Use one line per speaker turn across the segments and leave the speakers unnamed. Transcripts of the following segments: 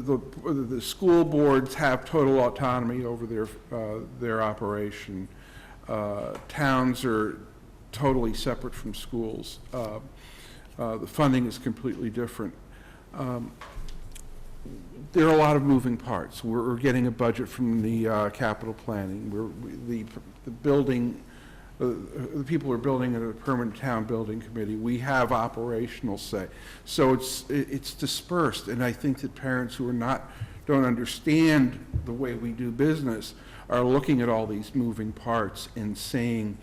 the, the school boards have total autonomy over their, uh, their operation. Uh, Towns are totally separate from schools. Uh, uh, The funding is completely different. Um, There are a lot of moving parts. We're, we're getting a budget from the uh, capital planning, we're, we- the, the building, uh, the people are building a permanent town building committee. We have operational say. So it's, it- it's dispersed, and I think that parents who are not, don't understand the way we do business are looking at all these moving parts and saying,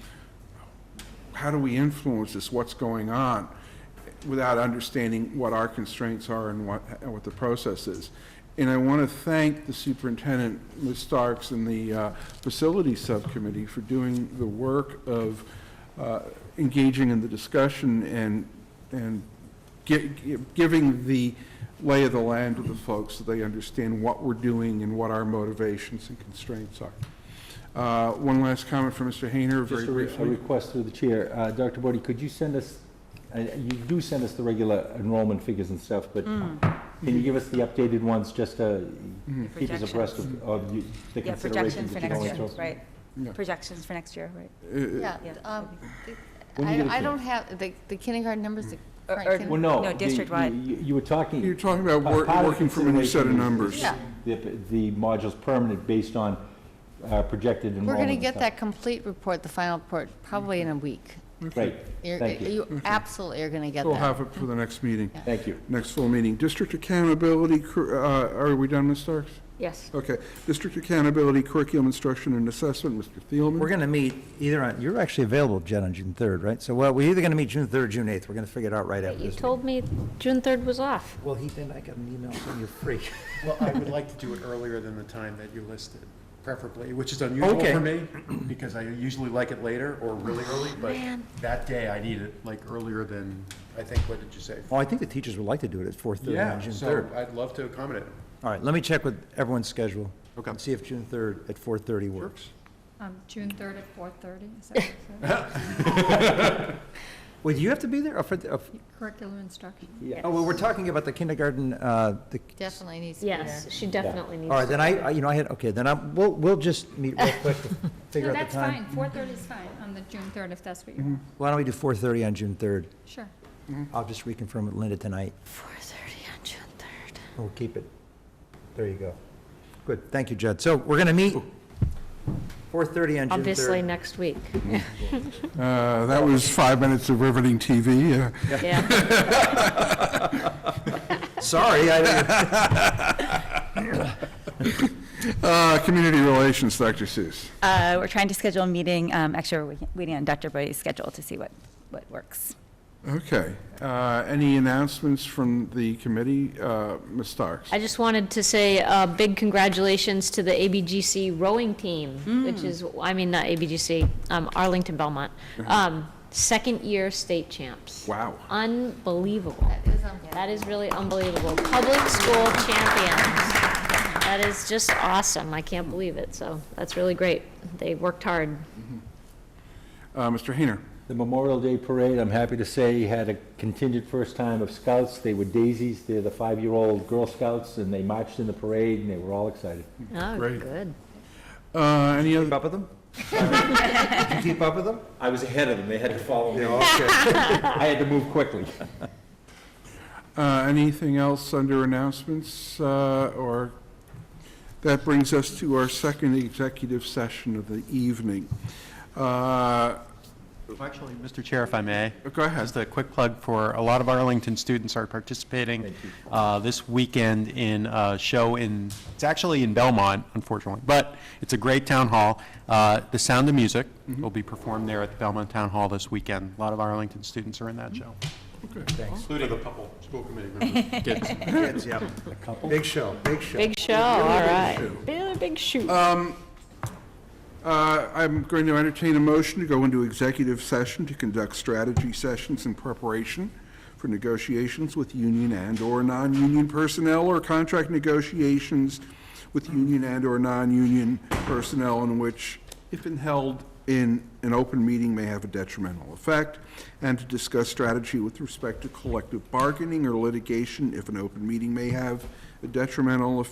how do we influence this, what's going on, without understanding what our constraints are and what, and what the process is. And I want to thank the superintendent, Ms. Starks, and the uh, facilities subcommittee for doing the work of uh, engaging in the discussion and, and gi- gi- giving the lay of the land to the folks so they understand what we're doing and what our motivations and constraints are. Uh, One last comment from Mr. Hayner, very
Just a re- a
briefly.
request through the chair. Uh, Dr. Bodie, could you send us, uh, you do send us the regular enrollment figures and stuff, but
Mm.
can you give us the updated ones just to
Mm-hmm.
keep us abreast of of you- the
Yeah,
considerations
projections for
that you're
next
going
year,
through?
right?
Yeah.
Projections for next year, right?
Uh,
Yeah,
Yeah.
um, the-
When you get a
I, I
kid.
don't have, the, the kindergarten numbers, the
Or-
current
or-
kinder-
Well, no.
No,
the-
district-wide.
you- You were talking.
You're talking about wor-
part of the
working from a new set of
consideration
numbers.
is
Yeah.
The the module's permanent based on uh, projected enrollment.
We're gonna
and
get
stuff.
that complete report, the final report, probably in a week.
Great,
You're-
Thank you.
You absolutely are gonna get
We'll
that.
have it for the next meeting,
thank you.
next full meeting. District accountability, cur- uh, are we done, Ms. Starks?
Yes.
Okay. District accountability, curriculum instruction and assessment, Mr.
We're
Thielman.
going to meet either on, you're actually available, Jen, on June 3rd, right? So, well, we're either going to meet June 3rd, or June 8th. We're going to figure it out right after
You
this.
told me June 3rd was off.
Well, he didn't, I got an email saying you're free.
Well, I would like to do it earlier than the time that you listed, preferably, which is unusual
Okay.
for me, because I usually like it later or really early, but that day I need it, like, earlier than, I think, what did you say?
Well, I think the teachers would like to do it at 4:30
Yeah,
on June
so
3rd.
I'd love to accommodate.
All right, let me check with everyone's schedule.
Okay.
And see if June 3rd at 4:30 works.
Um, June 3rd at 4:30, is that what you said?
Wait, do you have to be there? Or for the- or f-
Curriculum instruction.
Oh, well, we're talking about the kindergarten, uh, the,
Definitely needs to be there.
Yes, she definitely needs
all right,
to.
then I, I- you know, I had, okay, then I, we'll, we'll just meet real quick to figure out the time. Mm-hmm.
No, that's fine, 4:30 is fine on the June 3rd, if that's what you want.
Why don't we do 4:30 on June 3rd?
Sure.
I'll just reconfirm with Linda tonight.
4:30 on June 3rd.
We'll keep it. There you go. Good, thank you, Jed. So we're going to meet 4:30 on June 3rd.
Obviously, next week.
Uh, That was five minutes of riveting TV. uh,
Yeah,
Sorry, I didn't-
uh, Community relations, Dr. Seuss.
Uh, We're trying to schedule a meeting, um, actually, we're waiting- waiting on Dr. Bodie's schedule to see what, what works.
Okay. Uh, Any announcements from the committee? Uh, Ms. Starks?
I just wanted to say a big congratulations to the ABGC rowing team,
Mm.
which is, I mean, not ABGC, um, Arlington Belmont.
Uh-huh.
Um, Second-year state champs.
Wow.
Unbelievable.
That is on-
That is really unbelievable. Public school champions. That is just awesome. I can't believe it. So that's really great. They worked hard.
Uh, Mr. Hayner?
The Memorial Day Parade, I'm happy to say, had a contingent first time of scouts. They were daisies. They're the five-year-old Girl Scouts, and they marched in the parade, and they were all excited.
Oh,
Great.
good.
Uh, Any
keep
other,
up with them? Did you keep up with them?
I was ahead of them. They had to follow me.
Okay.
I had to move quickly.
uh, anything else under announcements? uh, Or, that brings us to our second executive session of the evening. Uh,
Actually, Mr. Chair, if I may.
Go ahead.
Just a quick plug for, a lot of Arlington students are participating uh, this weekend in a show in, it's actually in Belmont, unfortunately, but it's a great town hall. Uh, The Sound of Music will be performed there at the Belmont Town Hall this weekend. A lot of Arlington students are in that show. Including a couple school committee members. Kids.
Big show, big show.
Big show, all right. Really big shoot.
Uh, I'm going to entertain a motion to go into executive session to conduct strategy sessions in preparation for negotiations with union and/or non-union personnel or contract negotiations with union and/or non-union personnel in which, if held in an open meeting may have a detrimental effect, and to discuss strategy with respect to collective bargaining or litigation if an open meeting may have a detrimental effect